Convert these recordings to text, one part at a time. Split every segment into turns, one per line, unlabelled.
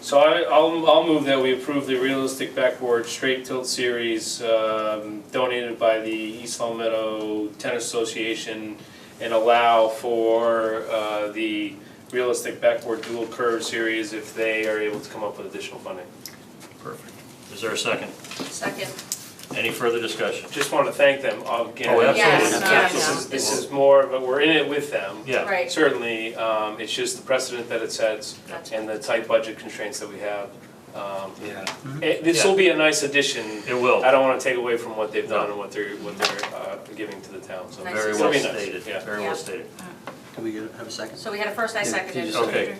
So I, I'll, I'll move that we approve the realistic backboard straight tilt series um, donated by the East Long Meadow Tennis Association and allow for uh, the realistic backboard dual curve series if they are able to come up with additional funding.
Perfect. Is there a second?
Second.
Any further discussion?
Just want to thank them again.
Oh, absolutely.
Yes,
This is-
yes.
This is more, but we're in it with them.
Yeah,
Right.
Certainly, um, it's just the precedent that it sets
Gotcha.
and the tight budget constraints that we have. Um,
Yeah.
it- This will be a nice addition
it will.
I don't wanna take away from what they've done
No.
and what they're, what they're, uh, giving to the town, so.
Nice
Very
it'll
well
be nice,
stated,
yeah.
very
Yeah.
well stated.
Can we get, have a second?
So we had a first, I
Yeah,
seconded.
you
Okay.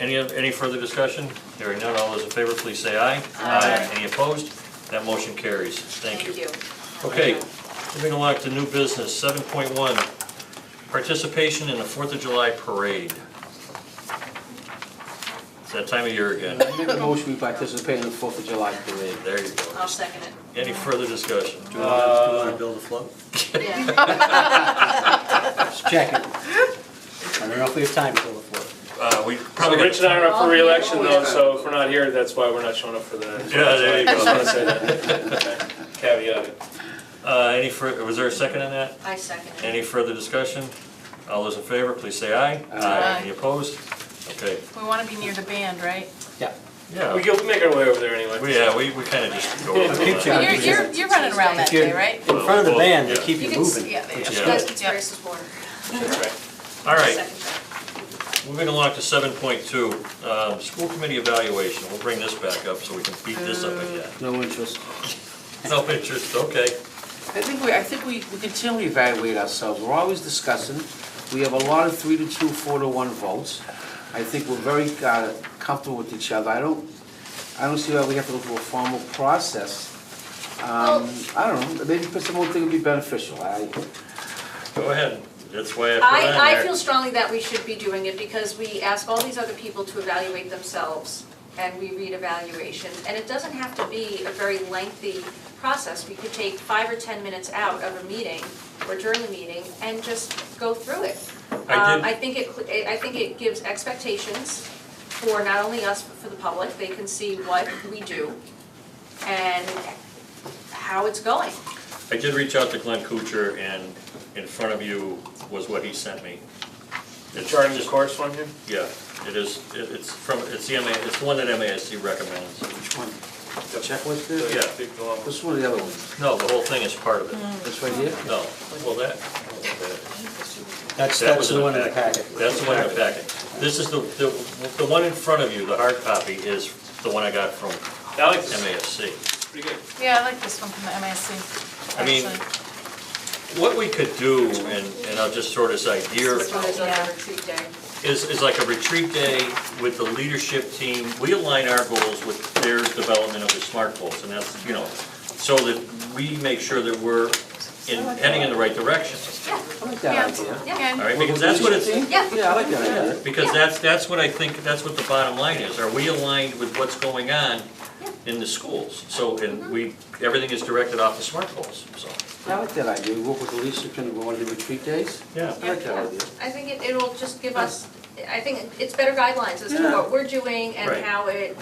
Any, any further discussion? Hearing none, all those in favor, please say aye.
Aye.
Any opposed? That motion carries. Thank you.
Thank
Okay, moving along to new business, seven point one, participation in the Fourth of July parade. It's that time of year again.
I make a motion we participate in the Fourth of July parade.
There you
you.
go.
I'll second it.
Any further discussion?
Do we want to build a float?
Yeah.
Just checking. I don't know if we have time to build a float.
Uh, we
So
probably.
Rich and
gotta-
I are up for
Oh,
reelection
yeah.
though, so if we're not here, that's why we're not showing up for the.
Yeah, there you
I just
go.
wanna say that. Caveat. it.
Uh, any fur, was there a second on that?
I seconded it.
Any further discussion? All those in favor, please say aye.
Aye.
Any opposed? Okay,
We want to be near the band, right?
Yeah.
yeah,
We go, we make our way over there anyway.
we, yeah, we, we kinda just go. over
Keep
that.
Yeah,
You're, you're, you're running around that day, right?
In front of the band, they
Yeah.
keep you
can s-
moving.
Yeah,
which is
you
Yeah.
guys
good.
can spray some water.
That's right.
All right,
Second that.
Moving along to seven point two, um, school committee evaluation, we'll bring this back up so we can beat this up again.
No interest.
No interest, okay.
I think we, I think we, we continually evaluate ourselves, we're always discussing, we have a lot of three to two, four to one votes. I think we're very uh, comfortable with each other, I don't, I don't see why we have to go through a formal process. Um, I don't know, maybe put some more thing would be beneficial, I,
Go ahead, that's why I put it on
I, I
there.
feel strongly that we should be doing it because we ask all these other people to evaluate themselves and we read evaluations. And it doesn't have to be a very lengthy process. We could take five or 10 minutes out of a meeting or during the meeting and just go through it.
I
Um, I
did,
think it, cl- I think it gives expectations for not only us, but for the public, they can see what we do and how it's going.
I did reach out to Glenn Kuchar and in front of you was what he sent me.
The
It's
charting the
just-
course one here?
Yeah, it is, it- it's from, it's the MA, it's the one that MASC recommends.
Which one? The checklist there?
Yeah.
Big long one.
This one or the other one?
No, the whole thing is part of it,
This right here?
no, well, that,
That's,
That
that's
was
the one in the
packet.
packet.
That's the one in the packet. This is the, the, the one in front of you, the hard copy, is the one I got from
I like this,
MASC.
it's pretty good.
Yeah, I like this one from the MASC.
I mean,
actually.
What we could do, and, and I'll just throw this idea,
This one is on
Yeah.
the retreat day.
is, is like a retreat day with the leadership team. We align our goals with their development of the SMART goals, and that's, you know, so that we make sure that we're in, heading in the right direction.
I like that
Yeah.
idea.
All
Yeah,
right, because that's what it's,
Yeah.
Yeah, I like that idea.
Because that's, that's what I think, that's what the bottom line is, are we aligned with what's going on in the schools? So, and we, everything is directed off the smart goals, so.
I like that idea, we work with the leadership team, we want to do retreat days.
Yeah.
I like that idea.
I think it, it'll just give us, I think it's better guidelines as to what we're doing
Right.
and how it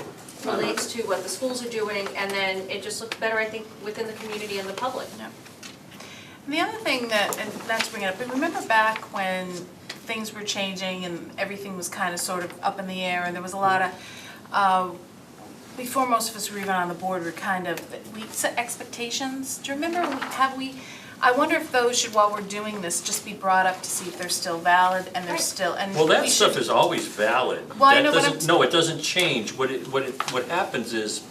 relates to what the schools are doing, and then it just looks better, I think, within the community and the public.
And the other thing that, and not to bring it up, but remember back when things were changing and everything was kind of sort of up in the air and there was a lot of, uh, before most of us were even on the board, we were kind of, we set expectations. Do you remember, we- have we, I wonder if those should, while we're doing this, just be brought up to see if they're still valid and they're
Right.
still, and
Well, that
we
stuff
should-
is always valid.
Well, I
That
know, but
doesn't-
I'm-
No, it doesn't change, what it, what it, what happens is,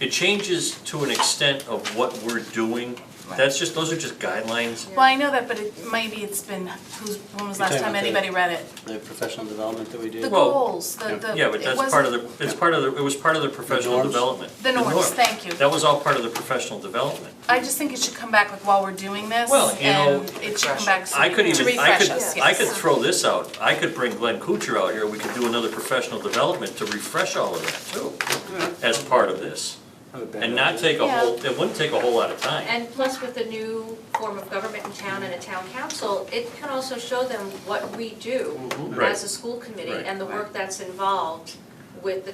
it changes to an extent of what we're doing. That's just, those are just guidelines.
Well, I know that, but it, maybe it's been, who's, when was the last
You're talking
time
about the-
anybody read it?
The professional development that we
The
do.
Well,
goals, the, the.
Yeah, but
it
that's
wasn't-
part of the, it's part of the, it was part of the professional
norms?
development.
The
norm.
norms, thank you.
That was all part of the professional development.
I just think it should come back like while we're doing this.
Well, you know,
and it should come back so
I could
to
even, I
refresh
could,
us,
I
yes.
could throw this out, I could bring Glenn Kuchar out here, we could do another professional development to refresh all of that too, as part of this.
Not a bad
And not
idea.
take a whole, it wouldn't take a whole lot of time.
And plus with the new form of government in town and a town council, it can also show them what we do
Right.
as a school committee
Right.
and the work that's involved with the